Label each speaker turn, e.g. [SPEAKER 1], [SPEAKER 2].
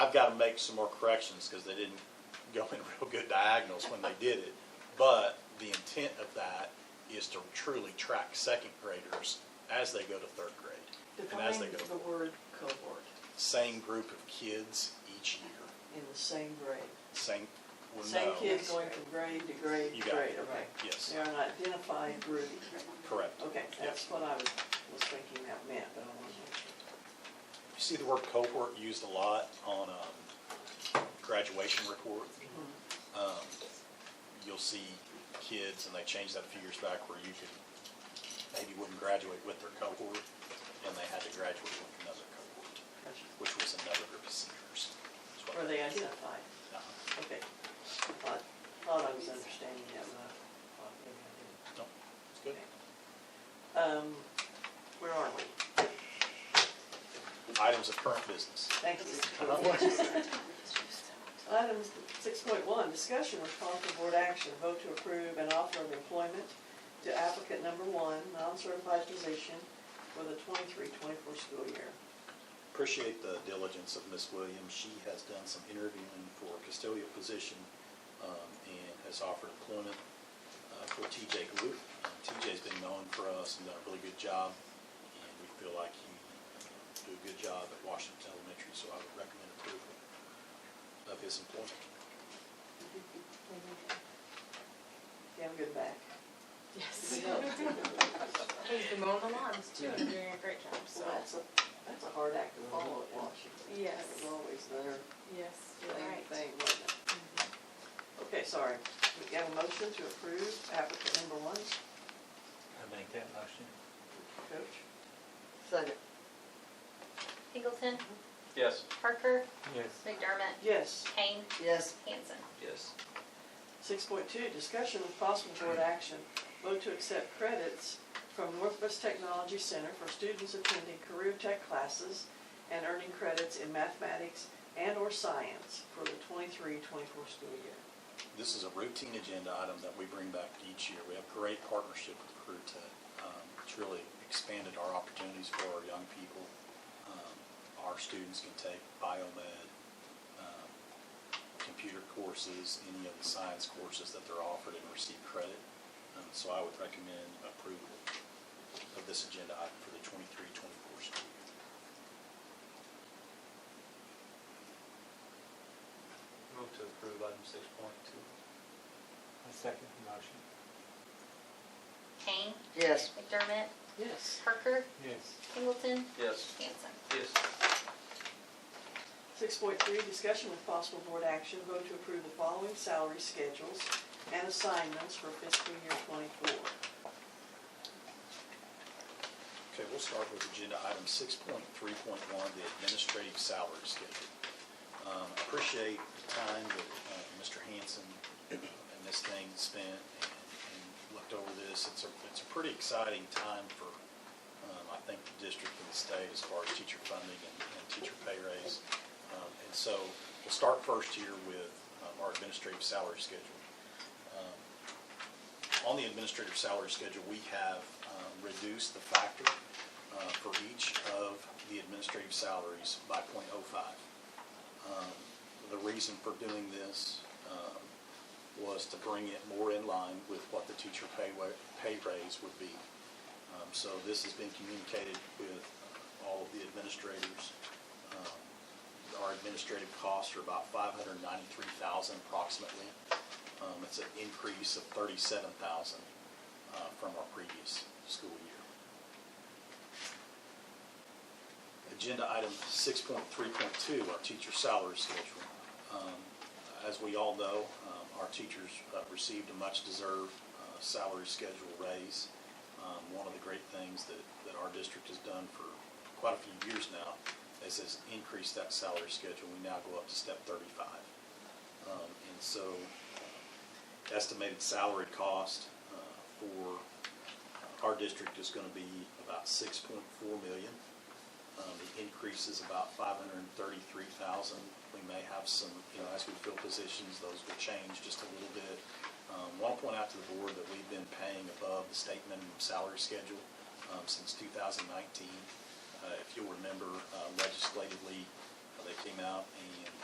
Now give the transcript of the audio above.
[SPEAKER 1] I've got to make some more corrections because they didn't go in real good diagonals when they did it. But the intent of that is to truly track second graders as they go to third grade. And as
[SPEAKER 2] Define
[SPEAKER 1] they go,
[SPEAKER 2] the word cohort
[SPEAKER 1] same group of kids each year,
[SPEAKER 2] in the same grade.
[SPEAKER 1] same, well, no.
[SPEAKER 2] Same kids going from grade to grade
[SPEAKER 1] You
[SPEAKER 2] to
[SPEAKER 1] got
[SPEAKER 2] grade,
[SPEAKER 1] it.
[SPEAKER 2] okay.
[SPEAKER 1] Yes,
[SPEAKER 2] They are an identified group.
[SPEAKER 1] correct.
[SPEAKER 2] Okay, that's
[SPEAKER 1] Yes.
[SPEAKER 2] what I was, was thinking that meant, but I wasn't sure.
[SPEAKER 1] You see the word cohort used a lot on um, graduation report. Um, You'll see kids, and they changed that a few years back, where you could, maybe wouldn't graduate with their cohort, and they had to graduate with another cohort,
[SPEAKER 2] Gotcha.
[SPEAKER 1] which was another group of seniors. That's what-
[SPEAKER 2] Were they identified?
[SPEAKER 1] Uh-huh.
[SPEAKER 2] Okay. Thought, thought I was understanding that, but I thought maybe I didn't.
[SPEAKER 1] No, it's good.
[SPEAKER 2] Um, where are we?
[SPEAKER 1] Items of current business.
[SPEAKER 2] Thank you. Item six point one, discussion with possible board action, vote to approve an offer of employment to applicant number one, non-certified position for the 23-24 school year.
[SPEAKER 1] Appreciate the diligence of Ms. Williams. She has done some interviewing for custodial position um, and has offered employment uh, for TJ Glue. TJ's been known for us and done a really good job, and we feel like he do a good job at Washington Elementary, so I would recommend approval of his employment.
[SPEAKER 2] You have a good back.
[SPEAKER 3] Yes. He's been mowing the lawns too and doing a great job,
[SPEAKER 2] So
[SPEAKER 3] so.
[SPEAKER 2] that's a, that's a hard act to follow at Washington.
[SPEAKER 3] Yes.
[SPEAKER 2] It was always their
[SPEAKER 3] Yes, you're
[SPEAKER 2] thing,
[SPEAKER 3] right.
[SPEAKER 2] thing, wasn't it? Okay, sorry. We have a motion to approve applicant number one,
[SPEAKER 4] I make that motion.
[SPEAKER 2] coach?
[SPEAKER 5] Second.
[SPEAKER 6] Pinkleton,
[SPEAKER 4] Yes.
[SPEAKER 6] Parker,
[SPEAKER 4] Yes.
[SPEAKER 6] McDermott,
[SPEAKER 2] Yes.
[SPEAKER 6] Kane,
[SPEAKER 5] Yes.
[SPEAKER 6] Hanson.
[SPEAKER 4] Yes.
[SPEAKER 2] Six point two, discussion with possible board action, vote to accept credits from Northwest Technology Center for students attending career tech classes and earning credits in mathematics and/or science for the 23-24 school year.
[SPEAKER 1] This is a routine agenda item that we bring back each year. We have great partnership with Crew Tech. Um, It's really expanded our opportunities for our young people. Um, Our students can take biomed, um, computer courses, any of the science courses that they're offered and receive credit. Um, So I would recommend approval of this agenda item for the 23-24 school year.
[SPEAKER 4] Move to approve item six point two. I second the motion.
[SPEAKER 6] Kane,
[SPEAKER 5] Yes.
[SPEAKER 6] McDermott,
[SPEAKER 2] Yes.
[SPEAKER 6] Parker,
[SPEAKER 4] Yes.
[SPEAKER 6] Pinkleton,
[SPEAKER 4] Yes.
[SPEAKER 6] Hanson.
[SPEAKER 4] Yes.
[SPEAKER 2] Six point three, discussion with possible board action, vote to approve the following salary schedules and assignments for fiscal year twenty-four.
[SPEAKER 1] Okay, we'll start with agenda item six point three point one, the administrative salary schedule. Um, I Appreciate the time that uh, Mr. Hanson and this thing spent and and looked over this. It's a, it's a pretty exciting time for, um, I think, the district and the state as far as teacher funding and and teacher pay raise. Um, And so we'll start first here with uh, our administrative salary schedule. Um, on the administrative salary schedule, we have uh, reduced the factor uh, for each of the administrative salaries by .05. Um, The reason for doing this um, was to bring it more in line with what the teacher pay wa- pay raise would be. Um, So this has been communicated with all of the administrators. Um, Our administrative costs are about 593,000 approximately. Um, It's an increase of 37,000 uh, from our previous school year. Agenda item 6.3.2, our teacher salary schedule. Um, As we all know, um, our teachers uh, received a much-deserved uh, salary schedule raise. Um, One of the great things that, that our district has done for quite a few years now is has increased that salary schedule. We now go up to step 35. Um, And so uh, estimated salary cost uh, for our district is going to be about 6.4 million. Um, The increase is about 533,000. We may have some, you know, as we fill positions, those will change just a little bit. Um, Want to point out to the board that we've been paying above the state minimum salary schedule um, since 2019. Uh, If you'll remember uh, legislatively, uh, they came out and